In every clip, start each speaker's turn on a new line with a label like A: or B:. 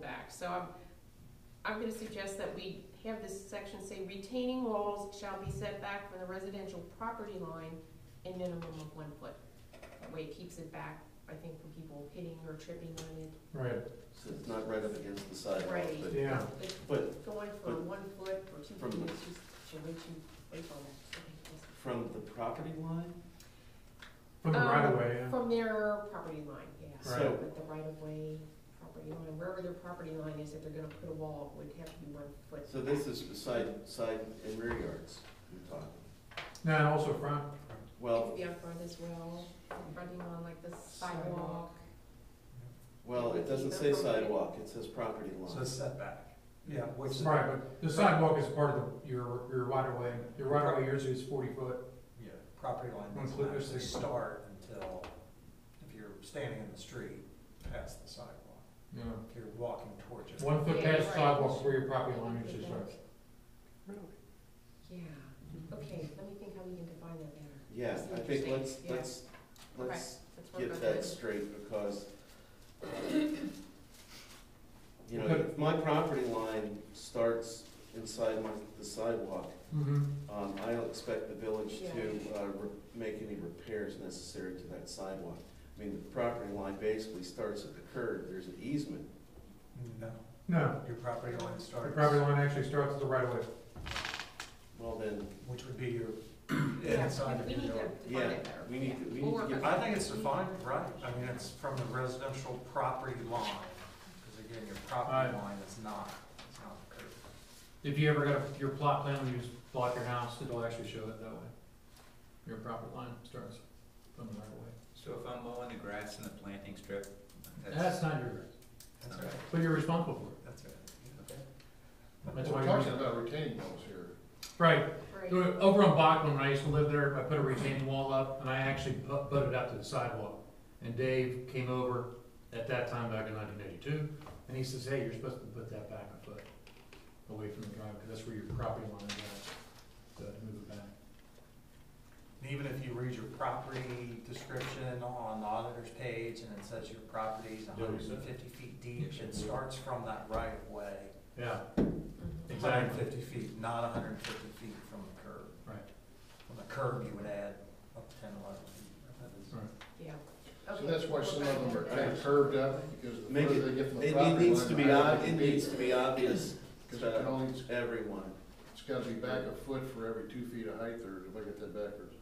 A: correct, so I'm, I'm gonna suggest that we have this section say retaining walls shall be set back from the residential property line a minimum of one foot. That way it keeps it back, I think, from people hitting or tripping on
B: Right,
C: So it's not right up against the sidewalk,
A: Right.
C: but,
B: yeah.
A: it. It's
C: but
A: Going from one foot or two
C: From-
A: feet, it's just, it's way too, way too long.
C: from the property line?
B: From the
A: Um,
B: right of way, yeah.
A: From their property line, yeah.
B: Right.
C: So,
A: But the right of way, property line, wherever their property line is, if they're gonna put a wall, it would have to be one foot.
C: so this is side, side and rear yards we're talking.
B: No, and also front.
A: It
C: Well,
A: could be out front as well, running on like the sidewalk.
B: Sidewalk.
C: well, it doesn't say sidewalk, it says property
D: So
C: line.
D: it's setback. Yeah, what's
B: Right, but the sidewalk is part of the- your, your right of way. Your right of way usually is forty foot.
D: Yeah, property line doesn't
B: Include this
D: actually
B: thing.
D: start until, if you're standing in the street, past the sidewalk.
B: Yeah.
D: If you're walking towards it.
B: One foot
A: Yeah,
B: past
A: right.
B: sidewalk where your property line is, just right.
C: Really?
A: Yeah, okay, let me think how we can define that better.
C: Yeah,
A: That's
C: I think
A: interesting,
C: let's,
A: yeah.
C: let's, let's
A: Let's work
C: get
A: on
C: that straight because, you know,
B: Okay.
C: if my property line starts inside my, the sidewalk,
B: Mm-hmm.
C: um, I don't expect the village
A: Yeah.
C: to, uh, re- make any repairs necessary to that sidewalk. I mean, the property line basically starts at the curb, there's an easement.
D: No,
B: No,
D: your property line
B: your
D: starts.
B: property line actually starts at the right of way.
C: Well, then,
D: Which would be your,
A: Yeah,
D: inside of
A: we
D: your
A: need to
D: yard.
A: define
C: yeah,
A: it better.
C: we need, to-
A: We'll
C: we need to
A: work
C: get.
A: on
D: I think it's defined right, I mean, it's from the residential property line, because again, your property
B: Right.
D: line is not, it's not the curb.
B: If you ever got a- your plot plan, when you just plot your house, it'll actually show it that way. Your property line starts from the right of way.
E: So if I'm mowing the grass in the planting strip,
B: That's
E: that's,
B: not your,
D: That's
E: Okay.
D: right,
B: but you're responsible for it.
D: that's right.
E: okay.
B: That's why
F: We're
B: you're
F: talking
B: responsible.
F: about retaining walls here.
B: Right,
A: Right.
B: Over on Bachman, when I used to live there, I put a retaining wall up, and I actually put put it up to the sidewalk. And Dave came over at that time back in nineteen eighty-two, and he says, hey, you're supposed to put that back a foot away from the drive, because that's where your property line is at, so to move it back.
D: And Even if you read your property description on the auditor's page and it says your property's
B: Yeah, we
D: hundred
B: said.
D: and fifty feet
B: Yeah,
D: deep,
B: sure.
D: it starts from that right of way.
B: Yeah,
A: Mhm.
D: Hundred and
B: exactly,
D: fifty feet, not hundred and fifty feet from the curb.
B: right,
D: From the curb, you would add up to ten, eleven feet. That is-
B: right.
A: Yeah.
F: So
A: Okay,
F: that's why
A: we'll
F: some
A: back
F: of them
A: to
F: are
A: that.
F: kind of curved up, because the
C: Make
F: further
C: it,
F: they get from the
C: it-
F: property
C: it
F: line.
C: needs to be, ob-
F: higher
C: it
F: they be,
C: needs to be obvious
F: Because it can
C: to
F: only,
C: everyone.
F: it's gotta be back a foot for every two feet of height, or if I get that backwards.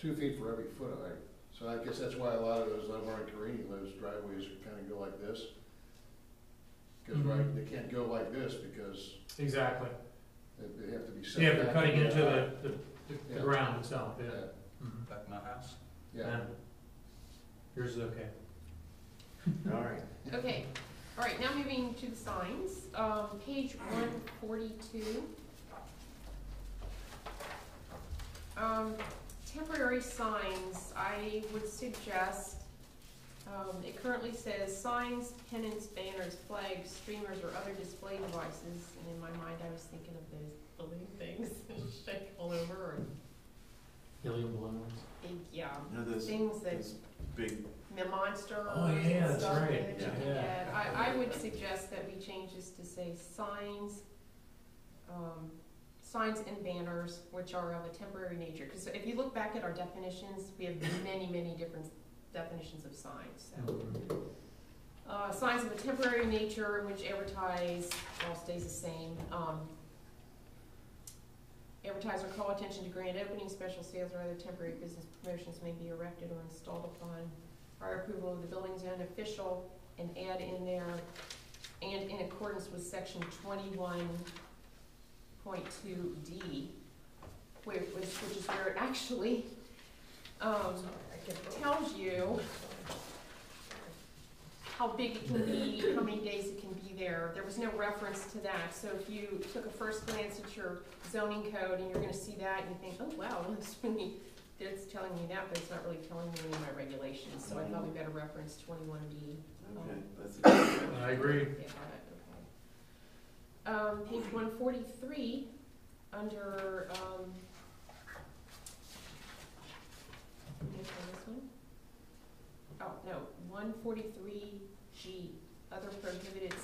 F: Two feet for every foot of height. So I guess that's why a lot of those, I'm already careening, those driveways kinda go like this. Cause right,
B: Mhm.
F: they can't go like this, because
B: exactly.
F: they, they have to be set
B: Yeah,
F: back.
B: they're cutting
F: from
B: into
F: height.
B: the, the, the
F: Yeah.
B: ground itself, yeah.
F: Yeah,
B: Mhm.
E: Like my house?
F: yeah.
B: Yeah. Yours is okay.
C: All right.
A: Okay, all right, now moving to the signs, um, page one forty-two. Um, temporary signs, I would suggest, um, it currently says signs, pennants, banners, flags, streamers, or other display devices, and in my mind, I was thinking of those balloon things that shake all over, or,
B: Helium balloons.
A: big, yeah,
C: You know, those,
A: things that
C: those big,
A: the monster.
B: Oh, yeah,
A: and
B: that's
A: stuff
B: right.
A: that you
C: Yeah.
A: can
B: Yeah.
A: get. I, I would suggest that we change this to say signs, um, signs and banners, which are of a temporary nature. Because if you look back at our definitions, we have many, many different definitions of signs, so. Uh, signs of a temporary nature which advertise, all stays the same, um, advertise or call attention to grand openings, special sales, or other temporary business promotions may be erected or installed upon prior approval of the building zone official, and add in there, and in accordance with section twenty-one point two D, where, which, which is where it actually, um, tells you how big it can be, how many days it can be there. There was no reference to that, so if you took a first glance at your zoning code and you're gonna see that and you think, oh, wow, that's really, that's telling me that, but it's not really telling me any of my regulations, so I thought we better reference twenty-one D.
C: okay, that's a good one.
B: I agree.
A: Yeah, okay. Um, page one forty-three, under, um, can you find this one? Oh, no, one forty-three G, other prohibited